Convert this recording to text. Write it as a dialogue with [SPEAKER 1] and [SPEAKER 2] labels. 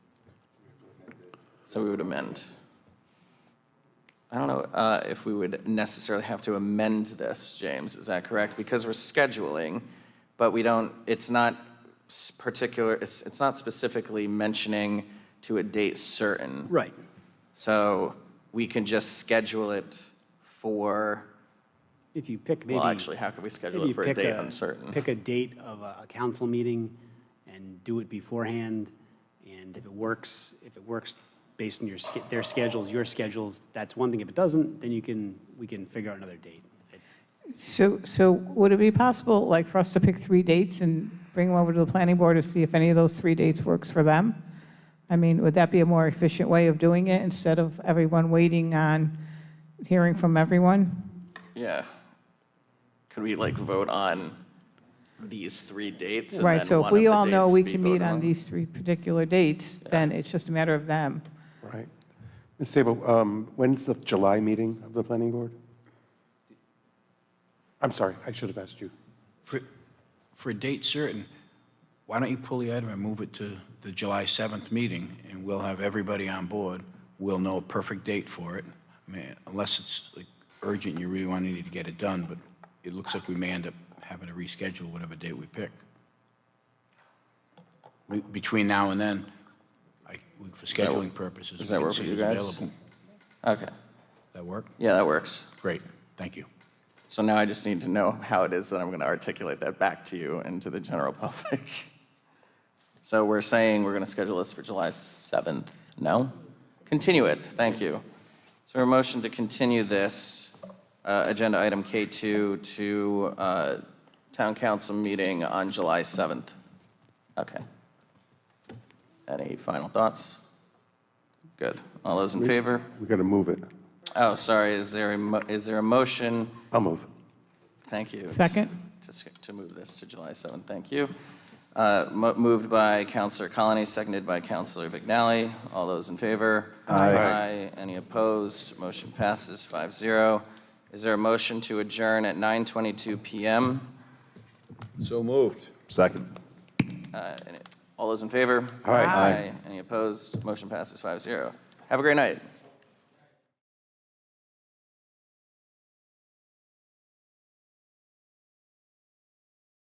[SPEAKER 1] So we would amend. I don't know uh, if we would necessarily have to amend this, James, is that correct? Because we're scheduling, but we don't, it's not s- particular, it's, it's not specifically mentioning to a date certain.
[SPEAKER 2] Right.
[SPEAKER 1] So we can just schedule it for,
[SPEAKER 2] If you pick maybe.
[SPEAKER 1] well, actually, how could we schedule
[SPEAKER 2] maybe
[SPEAKER 1] it
[SPEAKER 2] you
[SPEAKER 1] for a
[SPEAKER 2] pick
[SPEAKER 1] date uncertain?
[SPEAKER 2] Pick a date of a a council meeting and do it beforehand. And if it works, if it works based on your, sch- their schedules, your schedules, that's one thing. If it doesn't, then you can, we can figure out another date.
[SPEAKER 3] So, so would it be possible, like, for us to pick three dates and bring them over to the planning board to see if any of those three dates works for them? I mean, would that be a more efficient way of doing it instead of everyone waiting on hearing from everyone?
[SPEAKER 1] Yeah. Could we like vote on these three dates? and
[SPEAKER 3] Right,
[SPEAKER 1] then
[SPEAKER 3] so if
[SPEAKER 1] one of
[SPEAKER 3] we
[SPEAKER 1] the
[SPEAKER 3] all know
[SPEAKER 1] dates
[SPEAKER 3] we
[SPEAKER 1] be
[SPEAKER 3] can
[SPEAKER 1] voted
[SPEAKER 3] meet on these three particular dates, then it's just a matter of them.
[SPEAKER 4] Right. Ms. Sabo, um, when's the July meeting of the planning board? I'm sorry, I should have asked you.
[SPEAKER 5] For, for a date certain, why don't you pull the item and move it to the July 7th meeting, and we'll have everybody on board. We'll know a perfect date for it. I mean, unless it's like urgent, you really want to need to get it done, but it looks like we may end up having to reschedule whatever date we pick. We- Between now and then, I, we-
[SPEAKER 1] that-
[SPEAKER 5] for scheduling purposes.
[SPEAKER 1] does
[SPEAKER 5] we
[SPEAKER 1] that
[SPEAKER 5] can
[SPEAKER 1] work
[SPEAKER 5] see
[SPEAKER 1] with you
[SPEAKER 5] who's
[SPEAKER 1] guys?
[SPEAKER 5] available.
[SPEAKER 1] Okay,
[SPEAKER 5] That work?
[SPEAKER 1] yeah, that works.
[SPEAKER 5] Great, thank you.
[SPEAKER 1] So now I just need to know how it is that I'm going to articulate that back to you and to the general public. So we're saying we're going to schedule this for July 7th, no? Continue it, thank you. So a motion to continue this uh, agenda item K2 to uh, town council meeting on July 7th. Okay. Any final thoughts? Good. All those in favor?
[SPEAKER 4] We're going to move it.
[SPEAKER 1] Oh, sorry, is there a mo- is there a motion?
[SPEAKER 4] I'll move.
[SPEAKER 1] Thank you.
[SPEAKER 3] Second.
[SPEAKER 1] To s- To move this to July 7th, thank you. Uh, mo- Moved by Counselor Colony, seconded by Counselor Vignali. All those in favor?
[SPEAKER 4] Aye.
[SPEAKER 1] Any opposed? Motion passes 5-0. Is there a motion to adjourn at 9:22 PM?
[SPEAKER 6] So moved.
[SPEAKER 7] Second.
[SPEAKER 1] Uh, and it- All those in favor?
[SPEAKER 4] Aye. Aye.
[SPEAKER 1] Any opposed? Motion passes 5-0. Have a great night.